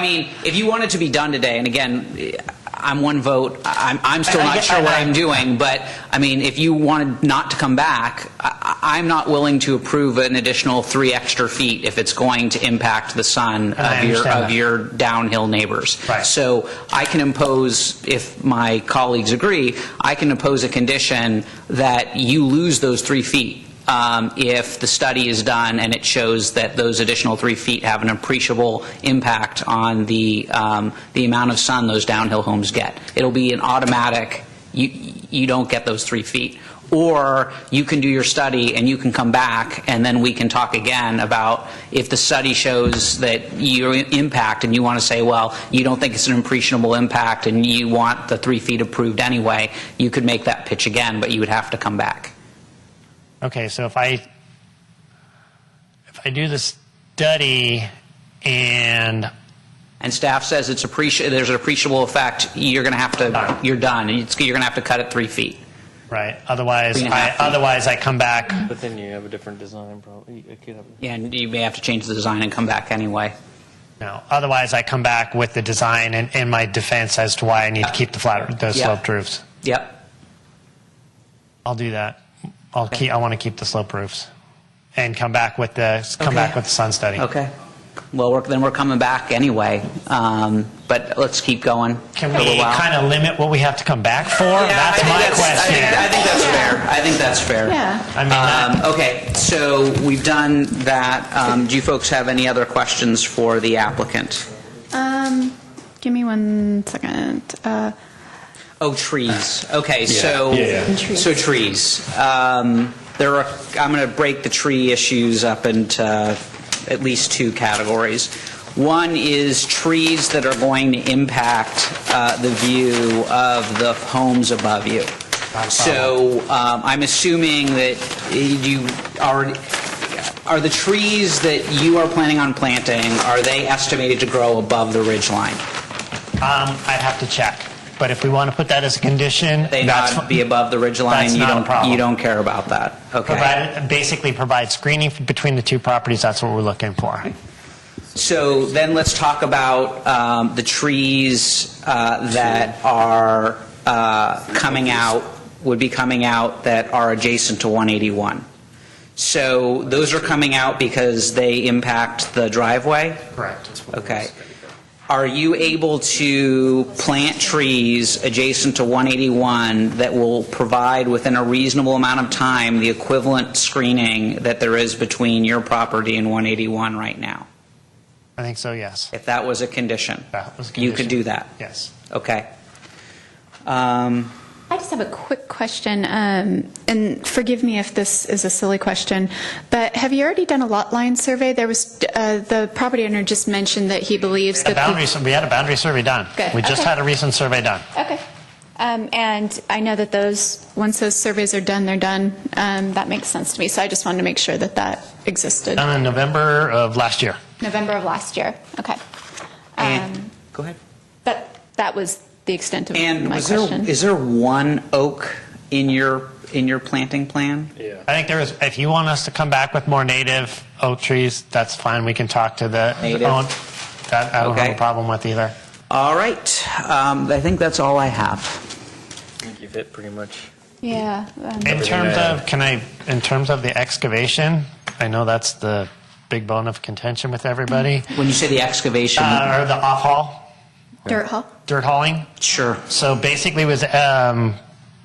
I mean, if you want it to be done today, and again, I'm one vote, I'm, I'm still I- I not get- sure what I- I'm doing, but, I mean, if you wanted not to come back, I, I- I'm not willing to approve an additional three extra feet if it's going to impact the sun And I of your, understand of that. your downhill neighbors. Right. So I can impose, if my colleagues agree, I can impose a condition that you lose those three feet um, if the study is done and it shows that those additional three feet have an appreciable impact on the, um, the amount of sun those downhill homes get. It'll be an automatic, you, you don't get those three feet. Or you can do your study and you can come back, and then we can talk again about if the study shows that your impact, and you want to say, well, you don't think it's an appreciable impact, and you want the three feet approved anyway, you could make that pitch again, but you would have to come back. Okay, so if I if I do the study and And staff says it's appreciable, there's an appreciable effect, you're going to have to, Done. you're done, and it's- you're going to have to cut it three feet. right, otherwise Three and a I half feet. otherwise I come back. But then you have a different design problem. It could have. And you may have to change the design and come back anyway. No, otherwise I come back with the design and, and my defense as to why I need to keep the flat the Yeah. sloped roofs. Yep, I'll do that. I'll keep. I want to keep the slope roofs, and come back with the come Okay. back with the sun study. okay. Well, we're- then we're coming back anyway, Um, but let's keep going. Can for a we while. kind of limit what we have to come back for? Yeah, I that's think my I question. think- I think that's fair. I think that's fair. Yeah. I mean, that- Um, Okay, so we've done that. Um, Do you folks have any other questions for the applicant? Um, give me one second. Uh, Oh, trees. Okay, so, Yeah, yeah. Trees. so trees. Um, There are, I'm going to break the tree issues up into uh, at least two categories. One is trees that are going to impact uh, the view of the homes above you. So um, I'm assuming that you already, are the trees that you are planning on planting, are they estimated to grow above the ridge line? um, I'd have to check. But if we want to put that as a condition, they that's not fi- be above the ridge line? that's you not a don't- problem. You don't care about that? Okay. Provide, basically provide screening f- between the two properties, that's what we're looking for. So then let's talk about um, the trees uh, that are uh, coming out, would be coming out that are adjacent to 181. So those are coming out because they impact the driveway? Correct. Okay. Are you able to plant trees adjacent to 181 that will provide within a reasonable amount of time the equivalent screening that there is between your property and 181 right now? I think so, yes. If that was a condition? That was a You could condition. do that? Yes. Okay. Um, I just have a quick question, um, and forgive me if this is a silly question, but have you already done a lot line survey? There was, uh, the property owner just mentioned that he believes that. The the- boundary, sur- we had a boundary survey done. Good, We just okay. had a recent survey done. Okay. Um, and I know that those, once those surveys are done, they're done. Um, that makes sense to me, so I just wanted to make sure that that existed. Um, Done in November of last year. November of last year, okay. Um, And, go ahead. That, that was the extent of And my was there, question. is there one oak in your, in your planting plan? I think there is, if you want us to come back with more native oak trees, that's fine, we can talk to the. the Native. own- That I don't have Okay. a problem with either. All right. Um, I think that's all I have. I think you've hit pretty much. Yeah. um, In terms I of, can I, in terms of the excavation, I know that's the big bone of contention with everybody, When you say the excavation, Uh, or the off-haul, Dirt hall? dirt hauling. sure. So basically, it was um,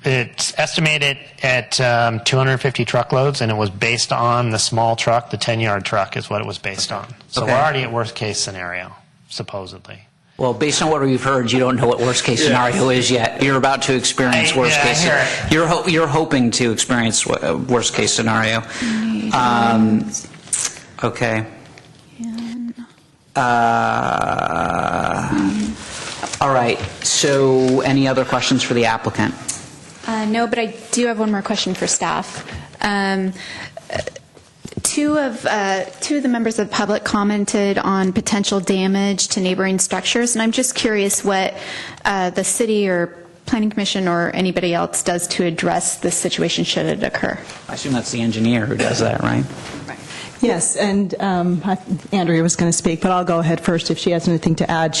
it's estimated at um, 250 truckloads, and it was based on the small truck, the 10 yard truck, is what it was based on. So Okay. we're already at worst case scenario, supposedly. Well, based on what we've heard, you don't know what worst case scenario is yet. You're about to experience I- worst yeah, I case. hear it. You're ho- you're hoping to experience wo- uh, worst case scenario. Um, okay. Uh, all right. So, any other questions for the applicant? Uh, No, but I do have one more question for staff. Um, uh, Two of, uh, two of the members of the public commented on potential damage to neighboring structures, and I'm just curious what uh, the city or planning commission or anybody else does to address this situation should it occur. I assume that's the engineer who does that, right? Yes, and um, I- Andrea was going to speak, but I'll go ahead first if she has anything to add.